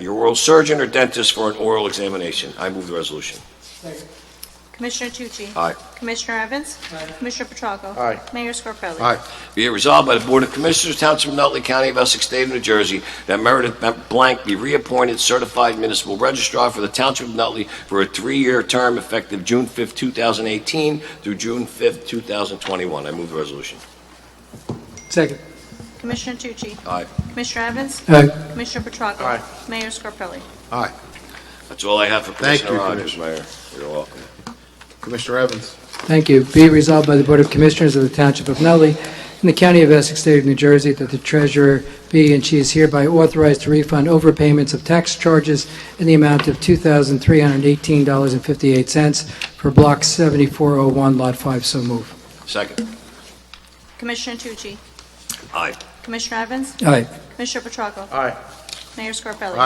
your oral surgeon or dentist for an oral examination. I move the resolution. Second. Commissioner Tucci? Aye. Commissioner Evans? Aye. Commissioner Petracco? Aye. Mayor Scarpelli? Aye. Be it resolved by the Board of Commissioners, Township of Nutley County of Essex, State of New Jersey, that Meredith Blank be reappointed certified municipal registrar for the Township of Nutley for a three-year term effective June 5, 2018 through June 5, 2021. I move the resolution. Second. Uh, Commissioner Tucci? Aye. Commissioner Evans? Aye. Commissioner Petracco? Aye. Mayor Scarpelli? Aye. That's all I have for Thank Commissioner you, Rogers, Mayor. You're welcome. Commissioner Evans? Thank you. Be it resolved by the Board of Commissioners of the Township of Nutley in the County of Essex, State of New Jersey, that the treasurer be and she is hereby authorized to refund overpayments of tax charges in the amount of $2,318.58 for Block 7401, Lot 5. So move. Second. Commissioner Tucci? Aye. Commissioner Evans? Aye. Commissioner Petracco? Aye. Mayor Scarpelli?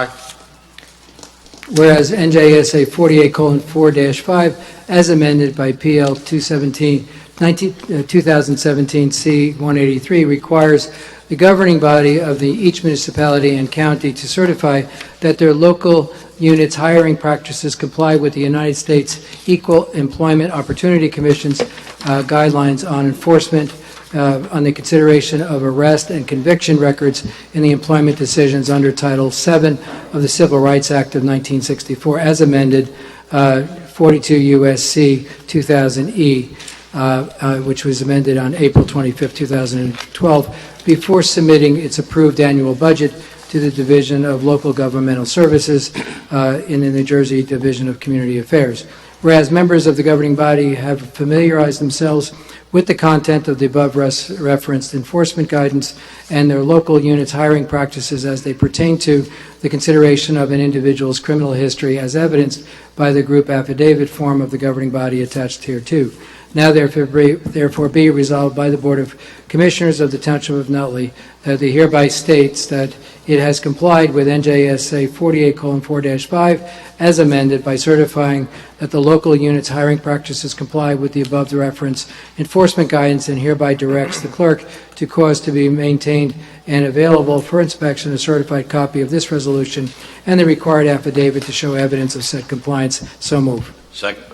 Whereas NJSA 48:4-5, as amended by PL 217, 19 uh, 2017 C-183, requires the governing body of the, each municipality and county to certify that their local units' hiring practices comply with the United States Equal Employment Opportunity Commission's uh, guidelines on enforcement uh, on the consideration of arrest and conviction records in the employment decisions under Title VII of the Civil Rights Act of 1964, as amended, uh, 42 U.S.C. 2000E, uh, uh, which was amended on April 25, 2012, before submitting its approved annual budget to the Division of Local Governmental Services uh, in the New Jersey Division of Community Affairs. Whereas members of the governing body have familiarized themselves with the content of the above res- referenced enforcement guidance and their local units' hiring practices as they pertain to the consideration of an individual's criminal history as evidenced by the group affidavit form of the governing body attached hereto. Now therefore be- therefore be resolved by the Board of Commissioners of the Township of Nutley that it hereby states that it has complied with NJSA 48:4-5 as amended by certifying that the local unit's hiring practices comply with the above reference enforcement guidance and hereby directs the clerk to cause to be maintained and available for inspection a certified copy of this resolution and the required affidavit to show evidence of said compliance. So move. Second.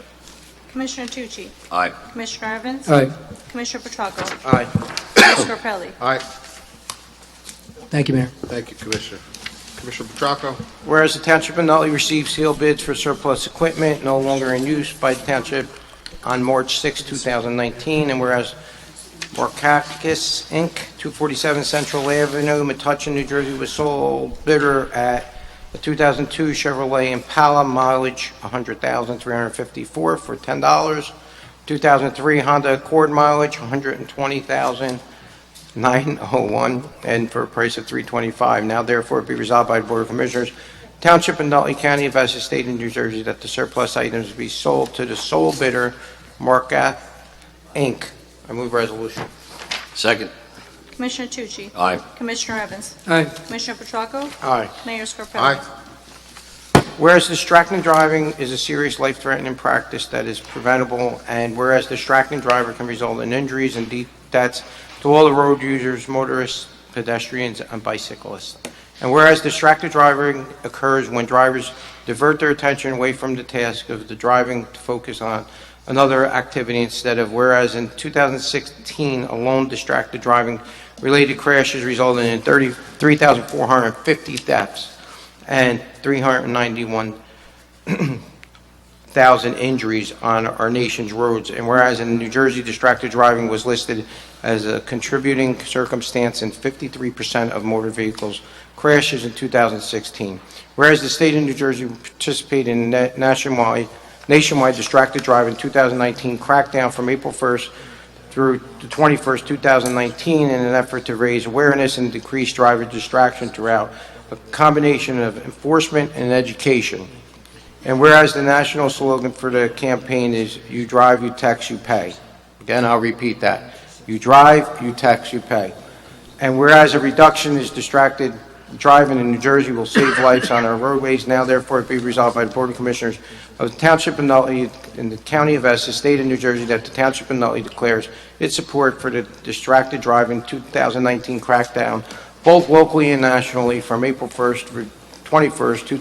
Commissioner Tucci? Aye. Commissioner Evans? Aye. Commissioner Petracco? Aye. Mayor Scarpelli? Thank you, Mayor. Thank you, Commissioner. Commissioner Petracco? Whereas the Township of Nutley received sealed bids for surplus equipment no longer in use by the township on March 6, 2019, and whereas Morcakis Inc., 247 Central Avenue, Metuchen, New Jersey, was sold bidder at a 2002 Chevrolet Impala mileage 100,354 for $10, 2003 Honda Accord mileage 120,000 901, and for a price of 325. Now therefore be resolved by the Board of Commissioners, Township and Nutley County of Essex State of New Jersey, that the surplus items be sold to the sole bidder, Marka Inc. I move resolution. Second. Commissioner Tucci? Aye. Commissioner Evans? Aye. Commissioner Petracco? Aye. Mayor Scarpelli? Whereas distracted driving is a serious life-threatening practice that is preventable, and whereas distracting driver can result in injuries and de- deaths to all the road users, motorists, pedestrians, and bicyclists. And whereas distracted driving occurs when drivers divert their attention away from the task of the driving to focus on another activity instead of, whereas in 2016 alone, distracted driving-related crashes resulted in 30 3,450 deaths and 391,000 injuries on our nation's roads. And whereas in New Jersey, distracted driving was listed as a contributing circumstance in 53% of motor vehicles crashes in 2016. Whereas the state of New Jersey participated in a nationwide, nationwide distracted driving 2019 crackdown from April 1st through the 21st, 2019, in an effort to raise awareness and decrease driver distraction throughout a combination of enforcement and education. And whereas the national slogan for the campaign is "You drive, you tax, you pay." Again, I'll repeat that. You drive, you tax, you pay. And whereas a reduction is distracted driving in New Jersey will save lives on our roadways, now therefore be resolved by the Board of Commissioners of the Township of Nutley in the County of Essex, State of New Jersey, that the Township of Nutley declares its support for the distracted driving 2019 crackdown, both locally and nationally, from April 1st through 21st, 2016,